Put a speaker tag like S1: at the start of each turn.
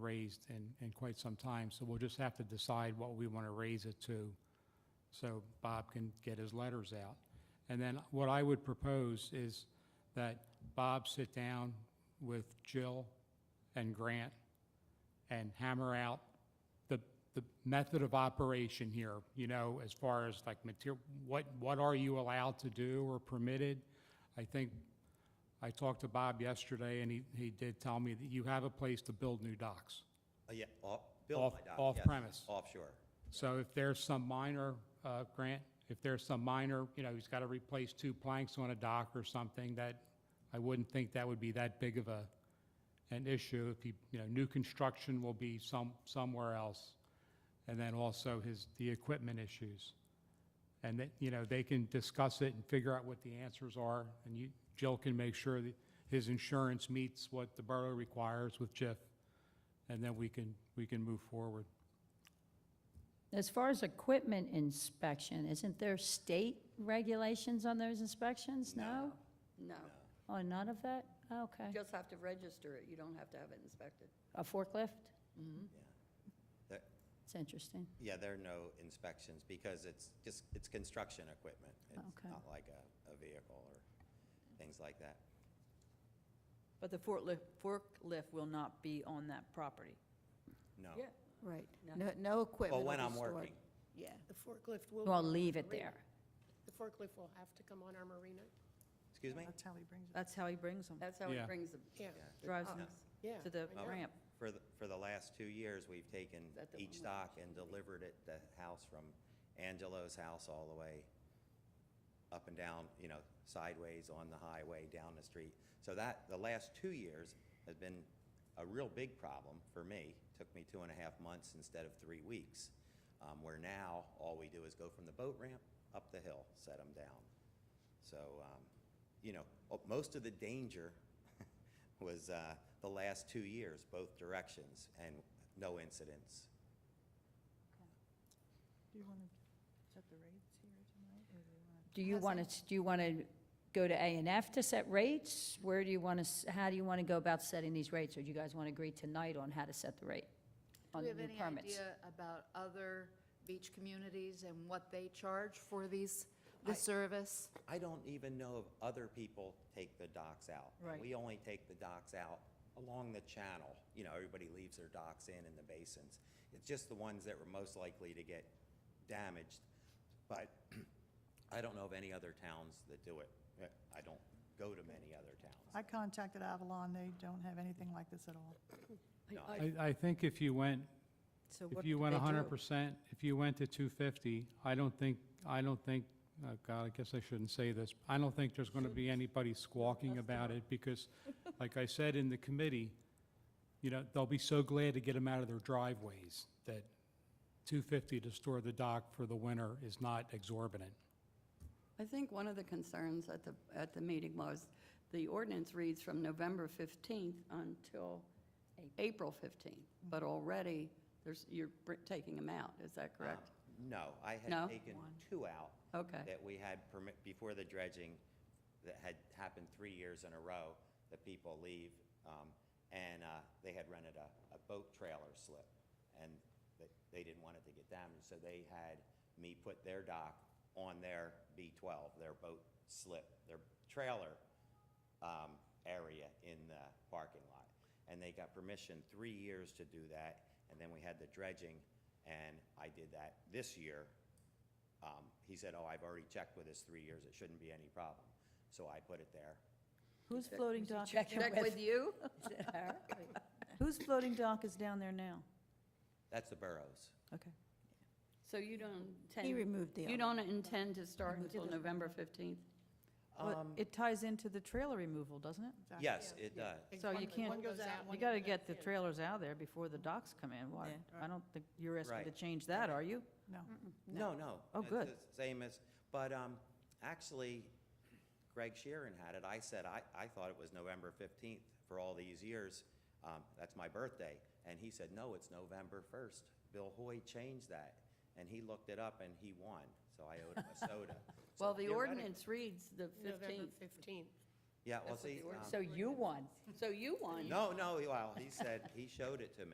S1: raised in, in quite some time, so we'll just have to decide what we want to raise it to, so Bob can get his letters out. And then what I would propose is that Bob sit down with Jill and Grant and hammer out the, the method of operation here, you know, as far as like material, what, what are you allowed to do or permitted? I think, I talked to Bob yesterday, and he, he did tell me that you have a place to build new docks.
S2: Uh, Yeah, off, build
S1: Off-
S2: my dock, yes.
S1: off-premise.
S2: Offshore.
S1: So if there's some minor, uh, Grant, if there's some minor, you know, he's got to replace two planks on a dock or something, that, I wouldn't think that would be that big of a, an issue. If he, you know, new construction will be some, somewhere else. And then also his, the equipment issues. And that, you know, they can discuss it and figure out what the answers are. And you, Jill can make sure that his insurance meets what the borough requires with JIF. And then we can, we can move forward.
S3: As far as equipment inspection, isn't there state regulations on those inspections? No?
S4: No,
S3: Oh, none of that? Oh, Okay.
S4: you just have to register it, you don't have to have it inspected.
S3: A forklift?
S2: There-
S3: It's interesting.
S2: Yeah, there are no inspections because it's just, it's construction equipment. It's
S3: Okay.
S2: not like a, a vehicle or things like that.
S5: But the forklift, forklift will not be on that property.
S2: No.
S4: Yeah,
S6: Right,
S4: No.
S6: no, no equipment.
S2: Well, when
S6: will
S2: I'm
S6: be stored.
S2: working,
S6: Yeah,
S7: The forklift will.
S3: Well,
S7: be on
S3: leave
S7: our
S3: it
S7: marina.
S3: there.
S7: The forklift will have to come on our marina.
S2: excuse me?
S8: That's how he brings it.
S5: That's how he brings them,
S4: that's how it
S1: Yeah.
S4: brings them.
S7: Yeah,
S5: drives them
S2: Yes.
S7: yeah.
S5: to the
S7: I know.
S5: ramp.
S2: For the, for the last two years, we've taken
S4: that the one
S2: each
S4: we
S2: dock and delivered it to the house from Angelo's house all the way up and down, you know, sideways on the highway, down the street. So that, the last two years has been a real big problem for me. Took me two and a half months instead of three weeks. Um, where now, all we do is go from the boat ramp up the hill, set them down. So, um, you know, oh, most of the danger was, uh, the last two years, both directions, and no incidents.
S8: Do you want to set the rates here tonight, or do you want
S3: Do you want to, do you want to go to A and F to set rates? Where do you want to, how do you want to go about setting these rates? Or do you guys want to agree tonight on how to set the rate on the new
S9: Do you have any
S3: permits?
S9: idea about other beach communities and what they charge for these, the service?
S2: I don't even know if other people take the docks out. And
S5: Right.
S2: We only take the docks out along the channel. You know, everybody leaves their docks in in the basins. It's just the ones that were most likely to get damaged. But I don't know of any other towns that do it. Eh, I don't go to many other
S8: to? I
S2: towns.
S8: contacted Avalon, they don't have anything like this at all.
S2: No, I-
S1: I, I think if you went
S5: So what
S1: If you
S5: do
S1: went
S5: they do?
S1: hundred percent, if you went to two fifty, I don't think, I don't think, oh God, I guess I shouldn't say this. I don't think there's gonna be anybody squawking about it because, like I said in the committee, you know, they'll be so glad to get them out of their driveways that two fifty to store the dock for the winter is not exorbitant.
S4: I think one of the concerns at the, at the meeting was, the ordinance reads from November 15th until April Mm-hmm. 15th, but already, there's, you're br- taking them out, is that correct?
S2: Um, No, I had
S4: No?
S2: taken two out.
S4: Okay.
S2: That we had permit, before the dredging, that had happened three years in a row, that people leave, um, and, uh, they had rented a, a boat trailer slip, and they, they didn't want it to get damaged, so they had me put their dock on their B twelve, their boat slip, their trailer, um, area in the parking lot. And they got permission three years to do that, and then we had the dredging, and I did that this year. Um, He said, oh, I've already checked with this three years, it shouldn't be any problem. So I put it there.
S5: Whose floating dock,
S4: Check with you?
S5: whose floating dock is down there now?
S2: That's the Burrows.
S5: Okay.
S4: So you don't intend.
S6: He removed the
S4: You
S6: other
S4: don't intend to start until November 15th?
S5: Well, it ties into the trailer removal, doesn't it?
S8: Exactly.
S2: Yes, it does.
S5: So you
S7: One
S5: can't,
S7: goes out,
S5: you
S7: one
S5: got to
S7: goes
S5: get the trailers out of there before the docks come in. Why, I don't think you're asking to
S2: Right.
S5: change that, are you?
S8: No.
S2: No, no.
S5: Oh,
S2: It's
S5: good.
S2: the Same as, but um, actually, Greg Sheeran had it. I said, I, I thought it was November 15th for all these years. Um, That's my birthday. And he said, no, it's November 1st. Bill Hoy changed that. And he looked it up and he won, so I owed him a soda. So
S4: Well, the
S2: theoretic-
S4: ordinance reads the
S7: November
S4: 15th,
S7: 15th.
S2: Yeah, well,
S4: That's what
S2: see,
S4: the ordinance-
S2: um,
S3: So you won.
S4: so you want.
S2: no, no, well, he said, he showed it to me.